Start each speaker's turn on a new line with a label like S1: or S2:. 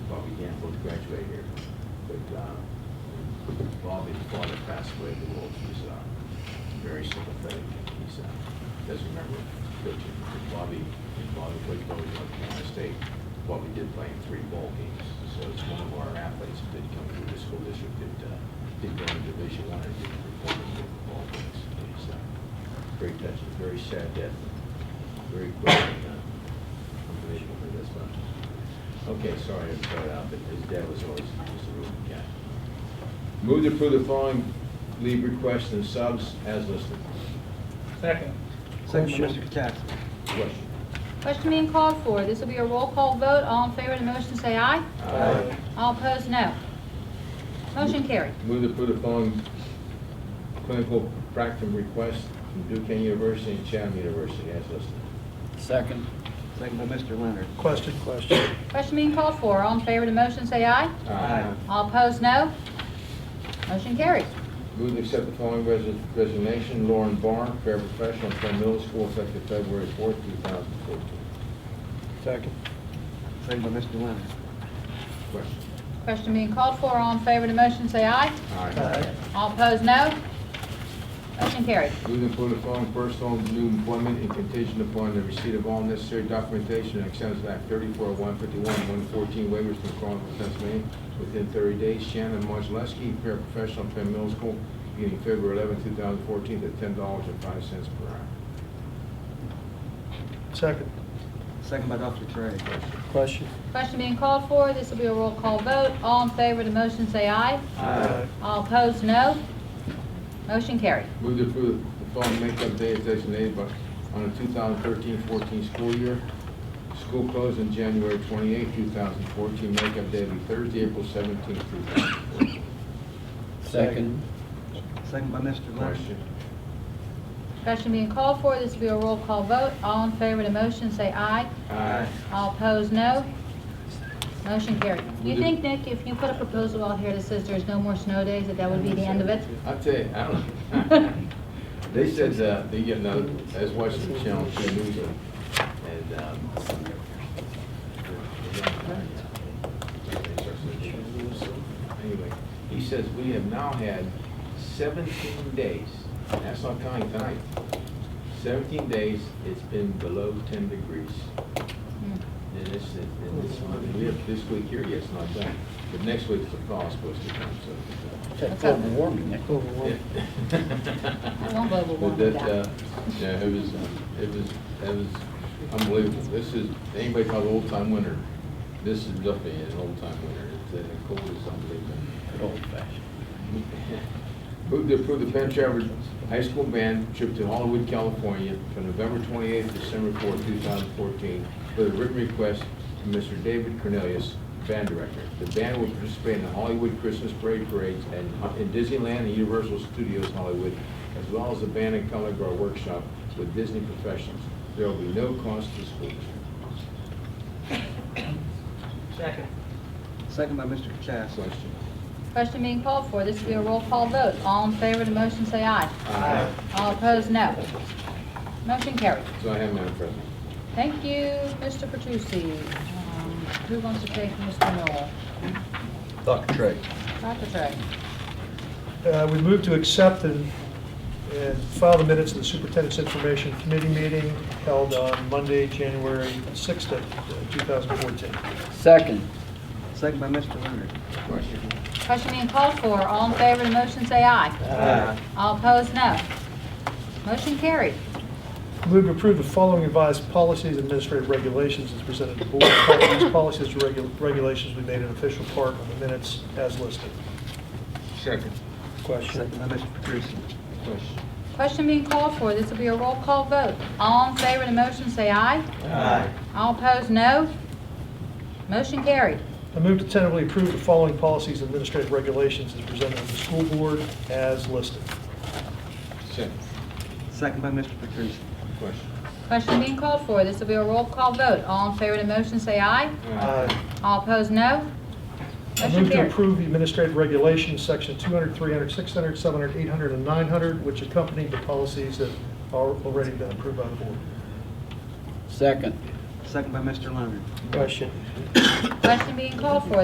S1: graduated here. But uh, Bobby's father passed away, the world, he's uh, very sympathetic. He's, uh, doesn't remember coaching. Bobby, Bobby played Bobby North Carolina State. Bobby did play in three bowl games, so it's one of our athletes that did come through the school district that uh, did go into Division One and did perform in different bowl games. And He's uh, very touching, very sad death, very quick. and, uh, Unbelievable, but that's fine. Okay, sorry to throw it out, but his dad was always, was a real guy. Move to approve the following leave requests and subs as listed.
S2: Second.
S3: Second by Mr. Katsas.
S1: Question?
S4: Question being called for. This will be a roll call vote. All in favor of the motion, say aye.
S1: Aye.
S4: All opposed, no. Motion carried.
S1: Move to approve the following clinical practicum requests from Duquesne University and Chatham University as listed.
S5: Second.
S3: Second by Mr. Leonard.
S2: Question. Question.
S4: Question being called for. All in favor of the motion, say aye.
S3: Aye.
S4: All opposed, no. Motion carries.
S1: Move to accept the following resi- resignation, Lauren Barr, paraprofessional from middle school effective February fourth, two thousand fourteen.
S2: Second.
S3: Second by Mr. Leonard.
S1: Question?
S4: Question being called for. All in favor of the motion, say aye.
S2: Aye.
S4: All opposed, no. Motion carried.
S1: Moving for the following personal new employment and contingent upon the receipt of all necessary documentation and acceptance of Act 34, 151, 114 waivers from Carlton, Pennsylvania within 30 days. Shannon Marchleski, paraprofessional, Penn Middle School, beginning February 11, 2014, at $10.05 per hour.
S2: Second.
S3: Second by Dr. Trey.
S2: Question.
S4: Question being called for. This will be a roll call vote. All in favor of the motion, say aye.
S2: Aye.
S4: All opposed, no. Motion carried.
S1: Move to approve the following makeup day as designated by, on the 2013-14 school year. School closed on January 28, 2014. Makeup day will be Thursday, April 17, 2014.
S5: Second.
S3: Second by Mr. Leonard.
S1: Question?
S4: Discussion being called for, this will be a roll call vote. All in favor of the motion, say aye.
S1: Aye.
S4: All opposed, no. Motion carried. Do you think, Nick, if you put a proposal out here that says there's no more snow days, that that would be the end of it?
S1: I'll tell you, I don't know. They said, uh, they, you know, I was watching the channel, two news, and, um, anyway, he says, we have now had seventeen days, and that's not counting tonight. Seventeen days, it's been below ten degrees.
S4: Hmm.
S1: And this, and this one, we have this week here, yes, not done, but next week's the thaw is supposed to come, so.
S5: Check global warming. eh?
S4: I won't global
S1: But
S4: warming
S1: that,
S4: that.
S1: uh, Yeah, it was, uh, it was, it was unbelievable. This is, anybody call it old time winter, this is definitely an old time winter. It's, uh, the cold is unbelievable.
S5: Good old fashioned.
S1: Move to approve the Penn Trafford High School band trip to Hollywood, California from November 28th to December 4th, 2014, with a written request from Mr. David Cornelius, band director. The band will participate in the Hollywood Christmas Parade parades and in Disneyland and Universal Studios Hollywood, as well as the band and color guard workshop with Disney professionals. There will be no cost to school.
S2: Second.
S3: Second by Mr. Katsas.
S1: Question?
S4: Question being called for, this will be a roll call vote. All in favor of the motion, say aye.
S1: Aye.
S4: All opposed, no. Motion carried.
S1: So I have, Madam President.
S4: Thank you, Mr. Petrucci. Um, Who wants to take Mr. Noel?
S5: Dr. Trey.
S4: Dr. Trey.
S2: Uh, We move to accept and and file the minutes of the Superintendent's Information Committee meeting held on Monday, January 6th, of, uh, 2014.
S5: Second.
S3: Second by Mr. Leonard.
S1: Question?
S4: Question being called for, all in favor of the motion, say aye. All opposed, no. Motion carried.
S2: Move to approve the following revised policies and administrative regulations as presented to the board. These policies and regu- regulations we made an official part of the minutes as listed.
S1: Second.
S3: Second by Mr. Petrusi.
S1: Question?
S4: Question being called for, this will be a roll call vote. All in favor of the motion, say aye.
S1: Aye.
S4: All opposed, no. Motion carried.
S2: I move to tentatively approve the following policies and administrative regulations as presented to the school board as listed.
S1: Second.
S3: Second by Mr. Petrusi.
S1: Question?
S4: Question being called for, this will be a roll call vote. All in favor of the motion, say aye. All opposed, no.
S2: I
S4: Motion
S2: move to
S4: carried.
S2: approve the administrative regulations, section 200, 300, 600, 700, 800, and 900, which accompany the policies that are already been approved by the board.
S5: Second.
S3: Second by Mr. Leonard.
S2: Question.
S4: Question being called for,